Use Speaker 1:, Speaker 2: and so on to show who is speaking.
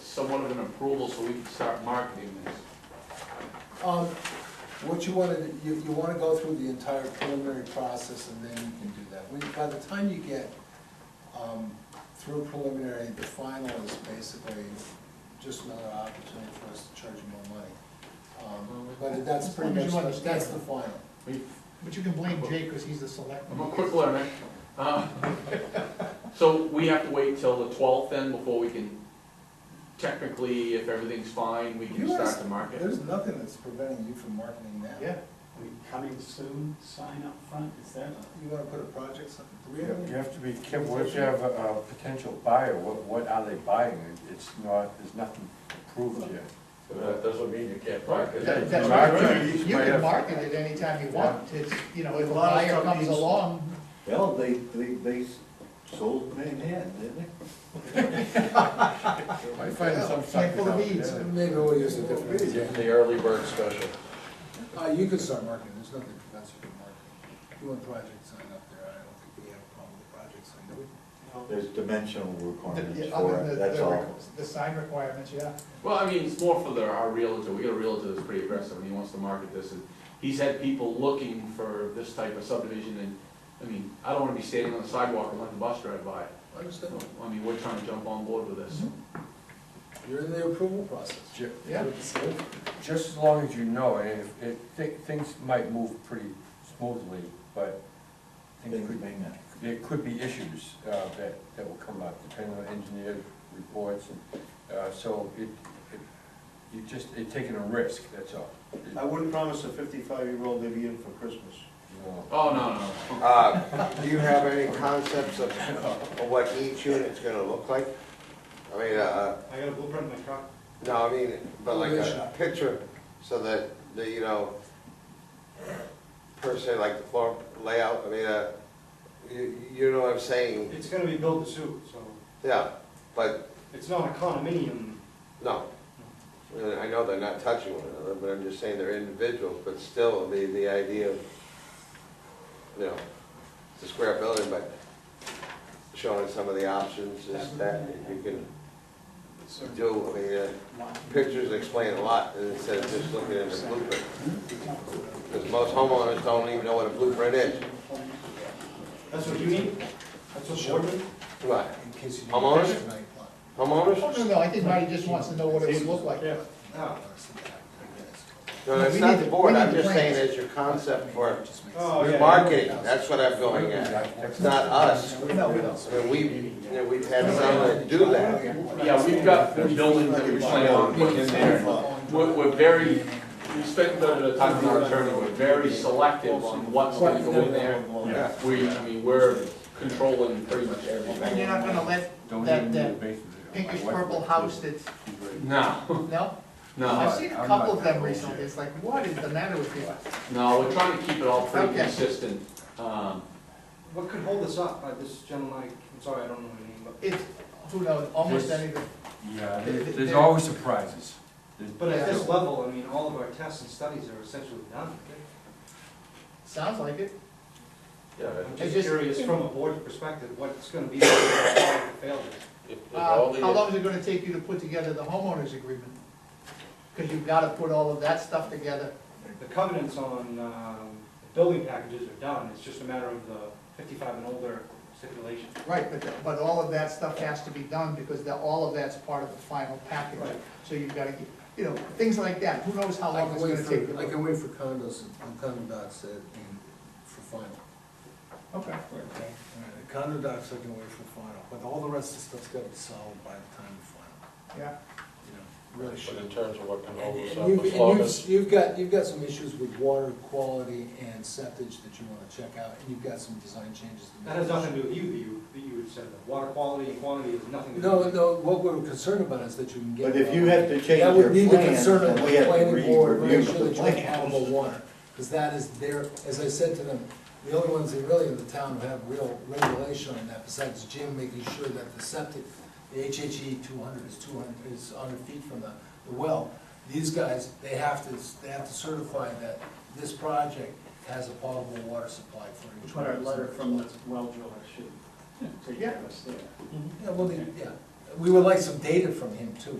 Speaker 1: somewhat of an approval so we can start marketing this.
Speaker 2: Um, What you wanna, do- you, you wanna go through the entire preliminary process and then you can do that. When- By the time you get, um, through preliminary, the final is basically just another opportunity for us to charge you more money. Um, But that's pretty
Speaker 3: As long
Speaker 2: much,
Speaker 3: as you
Speaker 2: that's the
Speaker 3: understand.
Speaker 2: final.
Speaker 1: We-
Speaker 3: But you can blame Jake, because he's the select.
Speaker 1: I'm a quick learner. Uh, So we have to wait till the twelfth then before we can, technically, if everything's fine, we can
Speaker 2: You are-
Speaker 1: start to market.
Speaker 2: There's nothing that's preventing you from marketing now.
Speaker 3: Yeah,
Speaker 4: I mean, Coming soon, sign up front, is that?
Speaker 2: You wanna put a project, some- do we
Speaker 5: You
Speaker 2: have any?
Speaker 5: you have to be careful, what if you have a a potential buyer, what, what are they buying? It's not, there's nothing approved yet.
Speaker 6: That doesn't mean you can't buy, because
Speaker 3: That-
Speaker 5: You
Speaker 3: that's
Speaker 5: market
Speaker 3: right.
Speaker 5: it,
Speaker 3: you can market it anytime you want, it's, you know, if a
Speaker 7: A lot of
Speaker 3: buyer comes
Speaker 7: companies-
Speaker 3: along,
Speaker 7: Well, they, they, they sold Manhattan, didn't they?
Speaker 5: Might find
Speaker 3: Handful
Speaker 5: some suckers
Speaker 3: of
Speaker 5: out
Speaker 3: beads.
Speaker 5: there.
Speaker 2: Maybe we'll use a different.
Speaker 6: it's the early bird special.
Speaker 2: Uh, you can start marketing, there's nothing that prevents you from marketing. You want project sign up there, I don't think we have a problem with project sign, do we?
Speaker 7: There's dimensional requirements
Speaker 3: the-
Speaker 7: for
Speaker 3: other
Speaker 7: it,
Speaker 3: than
Speaker 7: that's all.
Speaker 3: the, the sign requirements, yeah.
Speaker 1: Well, I mean, it's more for the, our realtor, we got a realtor that's pretty aggressive, and he wants to market this, and he's had people looking for this type of subdivision, and, I mean, I don't wanna be standing on the sidewalk and let the bus drive by.
Speaker 2: Understand,
Speaker 1: I mean, we're trying to jump on board with this.
Speaker 3: Mm-hmm.
Speaker 2: you're in the approval process.
Speaker 5: Ju-
Speaker 3: Yeah.
Speaker 5: Just as long as you know, and if, it, thi- things might move pretty smoothly, but
Speaker 7: They
Speaker 5: things could,
Speaker 7: may not.
Speaker 5: there could be issues, uh, that, that will come up, depending on engineer reports, and, uh, so it, it, you just, it taking a risk, that's all.
Speaker 7: I wouldn't promise a fifty-five-year-old they'd be in for Christmas.
Speaker 5: No.
Speaker 1: Oh, no, no, no.
Speaker 8: Uh, Do you have any concepts of of what each unit's gonna look like? I mean, uh,
Speaker 7: I got a blueprint in my truck.
Speaker 8: no, I mean, but like uh, a picture, so that, the you know, per se, like the floor layout, I mean, uh, you you know what I'm saying?
Speaker 7: It's gonna be built to suit, so
Speaker 8: Yeah, but,
Speaker 7: it's not a condominium.
Speaker 8: no. I mean, I know they're not touching one another, but I'm just saying they're individuals, but still, the, the idea of, you know, it's a square building, but showing some of the options is that you can do, I mean, uh, pictures explain a lot instead of just looking at a blueprint. Because most homeowners don't even know what a blueprint is.
Speaker 7: That's what you need? That's what Board needs?
Speaker 8: Right,
Speaker 2: In case you need.
Speaker 8: Homeowners?
Speaker 2: a picture, like, like,
Speaker 3: Oh,
Speaker 8: homeowners?
Speaker 3: no, no, I think Marty just wants to know what it would look like.
Speaker 7: Yeah.
Speaker 2: uh, something like that.
Speaker 8: No,
Speaker 3: We
Speaker 8: it's
Speaker 3: need
Speaker 8: not the
Speaker 3: the-
Speaker 8: board,
Speaker 3: we need
Speaker 8: I'm
Speaker 3: the
Speaker 8: just saying
Speaker 3: plans.
Speaker 8: it's your concept for
Speaker 2: Just makes
Speaker 7: Oh, yeah.
Speaker 8: marketing, that's what I'm going at. It's not us.
Speaker 3: No, we don't.
Speaker 8: I mean, we, you know, we've had some that do that.
Speaker 1: Yeah, we've got the buildings that we plan on putting in there. We're, we're very, we spent the, the time with our attorney, we're very selective on what's gonna go in there.
Speaker 8: Yeah.
Speaker 1: We, I mean, we're controlling pretty much
Speaker 3: And you're
Speaker 1: everything.
Speaker 3: not gonna let
Speaker 5: Don't
Speaker 3: That-
Speaker 5: even need a
Speaker 3: that
Speaker 5: basement. My
Speaker 3: pinkish
Speaker 5: wife
Speaker 3: purple
Speaker 5: lives
Speaker 3: house
Speaker 5: there.
Speaker 3: that's,
Speaker 5: She's very-
Speaker 1: No,
Speaker 3: no? I've
Speaker 1: no,
Speaker 3: seen a
Speaker 5: I'm
Speaker 3: couple
Speaker 5: not
Speaker 3: of them
Speaker 5: gonna
Speaker 3: recently, it's like, what is the matter with you?
Speaker 1: no, we're trying to keep it all pretty
Speaker 3: Okay.
Speaker 1: consistent. Um,
Speaker 9: What could hold us up by this gentleman, I'm sorry, I don't know his name, but
Speaker 3: It's, who knows, almost
Speaker 5: This-
Speaker 3: anything.
Speaker 5: Yeah, there-
Speaker 3: There-
Speaker 5: there's
Speaker 3: there-
Speaker 5: always surprises. There's-
Speaker 9: but at this level, I mean, all of our tests and studies are essentially done.
Speaker 3: Sounds like it.
Speaker 6: Yeah,
Speaker 9: I'm
Speaker 3: It's
Speaker 9: just
Speaker 3: just-
Speaker 9: curious from a board perspective, what's gonna be the failure?
Speaker 6: if, if
Speaker 3: Uh,
Speaker 6: all
Speaker 3: How
Speaker 6: the,
Speaker 3: long is it gonna take you to put together the homeowners agreement? Because you've gotta put all of that stuff together.
Speaker 9: The covenants on, um, the building packages are done, it's just a matter of the fifty-five and older stipulation.
Speaker 3: Right, but, but all of that stuff has to be done, because the, all of that's part of the final package.
Speaker 9: Right.
Speaker 3: So you've gotta, get- you know, things like that, who knows how
Speaker 2: I
Speaker 3: long
Speaker 2: can
Speaker 3: it's
Speaker 2: wait
Speaker 3: gonna take?
Speaker 2: for, I can wait for condos and condo docs that, and for final.
Speaker 3: Okay.
Speaker 2: Okay. The condo docs I can wait for final, but all the rest of the stuff's gotta be solved by the time of final,
Speaker 3: Yeah,
Speaker 2: you know,
Speaker 6: but
Speaker 2: really
Speaker 6: in
Speaker 2: should.
Speaker 6: terms of what can hold us up,
Speaker 2: And
Speaker 6: the
Speaker 2: you've, and
Speaker 6: slowness.
Speaker 2: you've, you've got, you've got some issues with water quality and septic that you wanna check out, and you've got some design changes to make.
Speaker 9: That has nothing to do with you, that you, that you had said, that water quality and quantity is nothing to do
Speaker 2: No,
Speaker 9: with you.
Speaker 2: no, what we're concerned about is that you can get.
Speaker 7: But if you have to change
Speaker 2: That would
Speaker 7: your
Speaker 2: need to
Speaker 7: plans,
Speaker 2: concern
Speaker 7: then
Speaker 2: the
Speaker 7: we have to
Speaker 2: planning board,
Speaker 7: re-review
Speaker 2: Make sure
Speaker 7: the
Speaker 2: that you have
Speaker 7: plans.
Speaker 2: potable water, because that is their, as I said to them, the only ones that really in the town who have real regulation on that, besides Jim making sure that the septic, the HHE two hundred is two hundred, is hundred feet from the, the well. These guys, they have to, they have to certify that this project has a potable water supply for each
Speaker 4: Put
Speaker 2: one.
Speaker 4: our
Speaker 2: of these
Speaker 4: letter from the
Speaker 2: lots.
Speaker 4: well driller should take care of us there.
Speaker 2: Yeah, well, they- yeah, we would like some data from him too,